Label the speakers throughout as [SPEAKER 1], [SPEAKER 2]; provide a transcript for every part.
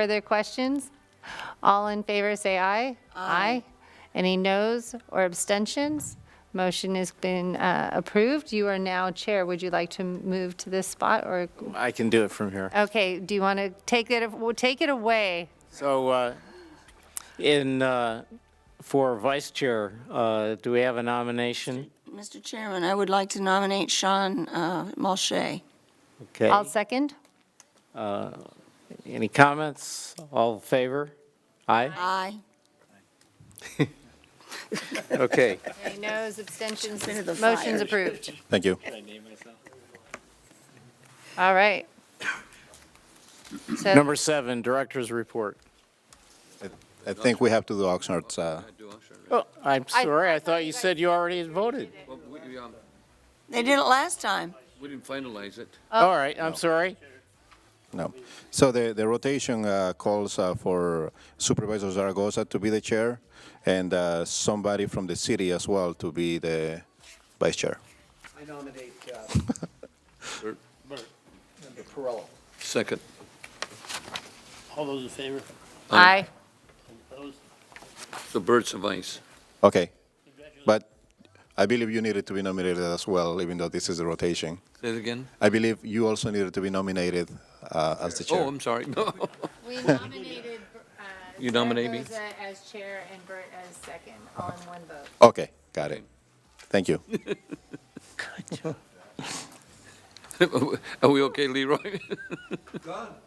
[SPEAKER 1] Further questions? All in favor, say aye. Aye. Any noes or abstentions? Motion has been uh, approved. You are now chair. Would you like to move to this spot or,
[SPEAKER 2] I can do it from here.
[SPEAKER 1] okay, do you want to take it, well, take it away?
[SPEAKER 2] So, uh, in, uh, for vice chair, uh, do we have a nomination?
[SPEAKER 3] Mr. Chairman, I would like to nominate Sean uh, Mulchay.
[SPEAKER 2] Okay.
[SPEAKER 1] I'll second.
[SPEAKER 2] Uh, Any comments? All in favor? Aye?
[SPEAKER 3] Aye.
[SPEAKER 2] Okay.
[SPEAKER 1] Any noes, abstentions?
[SPEAKER 3] Consider the
[SPEAKER 1] Motion's
[SPEAKER 3] fire.
[SPEAKER 1] approved.
[SPEAKER 4] Thank you.
[SPEAKER 1] All right. So
[SPEAKER 2] Number seven, director's report.
[SPEAKER 4] I think we have to do Oxnard's, uh,
[SPEAKER 2] Oh, I'm
[SPEAKER 1] I-
[SPEAKER 2] sorry, I thought you said you already had voted.
[SPEAKER 5] Well, we, um,
[SPEAKER 3] They did it last time.
[SPEAKER 5] we didn't finalize it.
[SPEAKER 2] All right, I'm sorry.
[SPEAKER 4] no. So the, the rotation uh, calls uh, for Supervisor Zaragoza to be the chair and uh, somebody from the city as well to be the vice chair.
[SPEAKER 6] I nominate uh,
[SPEAKER 5] Bert.
[SPEAKER 6] Member Perrello.
[SPEAKER 5] Second.
[SPEAKER 7] All those in favor?
[SPEAKER 1] aye.
[SPEAKER 7] Opposed?
[SPEAKER 5] The Burt's of Ice.
[SPEAKER 4] Okay,
[SPEAKER 7] Congratulations.
[SPEAKER 4] but I believe you needed to be nominated as well, even though this is the rotation.
[SPEAKER 5] Say it again?
[SPEAKER 4] I believe you also needed to be nominated uh, as the
[SPEAKER 5] Oh,
[SPEAKER 4] chair.
[SPEAKER 5] I'm sorry. No.
[SPEAKER 1] We nominated uh,
[SPEAKER 5] You nominate me? Zaragoza
[SPEAKER 1] as chair and Bert as second, all in one vote.
[SPEAKER 4] Okay, got it. Thank you.
[SPEAKER 5] Are we okay, Leroy?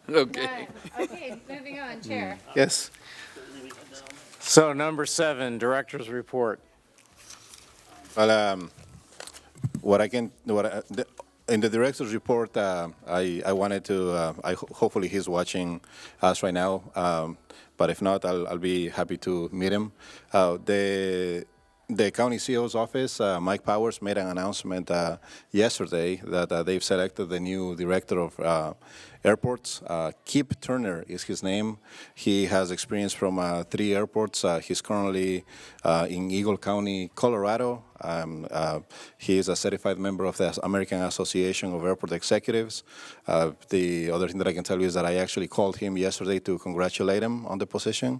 [SPEAKER 5] Okay.
[SPEAKER 1] Okay, moving on, Chair.
[SPEAKER 2] Yes. So number seven, director's report.
[SPEAKER 4] Well, um, what I can, what I, the, in the director's report, uh, I, I wanted to, uh, I ho- hopefully he's watching us right now, um, but if not, I'll, I'll be happy to meet him. Uh, the the county CEO's office, uh, Mike Powers, made an announcement uh, yesterday that uh, they've selected the new director of uh, airports. Uh, Kip Turner is his name. He has experience from uh, three airports. Uh, he's currently uh, in Eagle County, Colorado. Um, uh, he is a certified member of the American Association of Airport Executives. Uh, the other thing that I can tell you is that I actually called him yesterday to congratulate him on the position,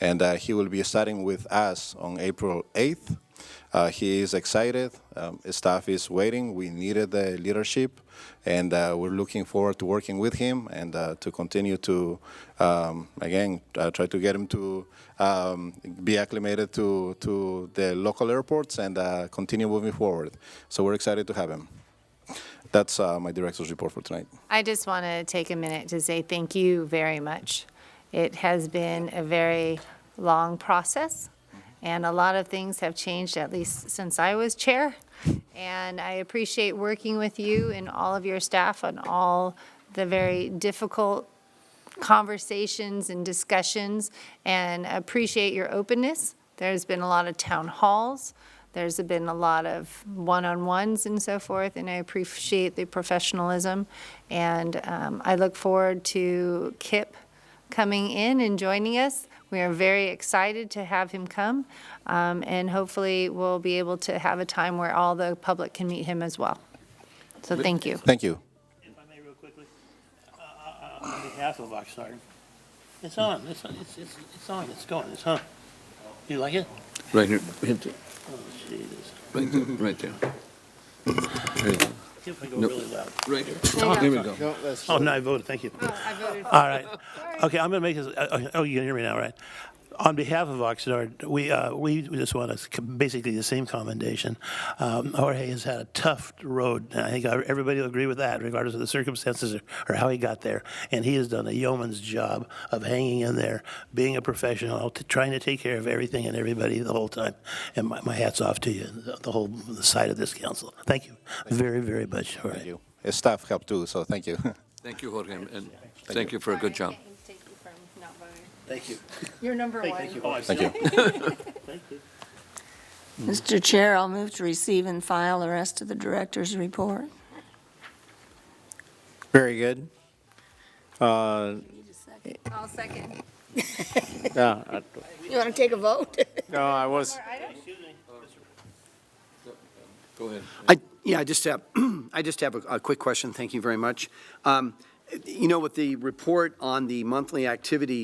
[SPEAKER 4] and uh, he will be starting with us on April 8th. Uh, he is excited. Um, staff is waiting. We needed the leadership, and uh, we're looking forward to working with him and uh, to continue to, um, again, uh, try to get him to um, be acclimated to, to the local airports and uh, continue moving forward. So we're excited to have him. That's uh, my director's report for tonight.
[SPEAKER 1] I just want to take a minute to say thank you very much. It has been a very long process, and a lot of things have changed, at least since I was chair. And I appreciate working with you and all of your staff on all the very difficult conversations and discussions and appreciate your openness. There's been a lot of town halls. There's been a lot of one-on-ones and so forth, and I appreciate the professionalism. And um, I look forward to Kip coming in and joining us. We are very excited to have him come, um, and hopefully we'll be able to have a time where all the public can meet him as well. So thank you.
[SPEAKER 4] Thank you.
[SPEAKER 7] If I may, real quickly, uh, uh, on behalf of Oxnard, it's on, it's on, it's, it's it's on, it's going, it's on. You like it?
[SPEAKER 5] Right here, right there,
[SPEAKER 7] Oh, Jesus.
[SPEAKER 5] right there, right there. Right there.
[SPEAKER 7] See if I go
[SPEAKER 5] Nope.
[SPEAKER 7] really loud.
[SPEAKER 5] Right there. There we go.
[SPEAKER 7] Oh, no, I voted, thank you.
[SPEAKER 1] I voted
[SPEAKER 7] All right. Okay, I'm going to make this, uh, okay, oh, you can hear me now, right? On behalf of Oxnard, we, uh, we just want to, basically the same commendation. Um, Jorge has had a tough road, and I think everybody will agree with that, regardless of the circumstances or- or how he got there. And he has done a yeoman's job of hanging in there, being a professional, t- trying to take care of everything and everybody the whole time. And my my hat's off to you, and the- the whole side of this council. Thank you very, very much, Jorge.
[SPEAKER 4] Thank you. His staff helped too, so thank you.
[SPEAKER 5] Thank you, Jorge, and thank you for a good job.
[SPEAKER 7] Thank you.
[SPEAKER 1] You're number one.
[SPEAKER 7] Thank you. Oh, I
[SPEAKER 4] thank you.
[SPEAKER 7] Thank you.
[SPEAKER 3] Mr. Chair, I'll move to receive and file the rest of the director's report.
[SPEAKER 2] Very good. Uh,
[SPEAKER 1] I'll second.
[SPEAKER 2] no, I-
[SPEAKER 3] You want to take a vote?
[SPEAKER 2] no, I was,
[SPEAKER 5] Go ahead.
[SPEAKER 6] I, yeah, I just have, I just have a, a quick question, thank you very much. Um, You know, with the report on the monthly activity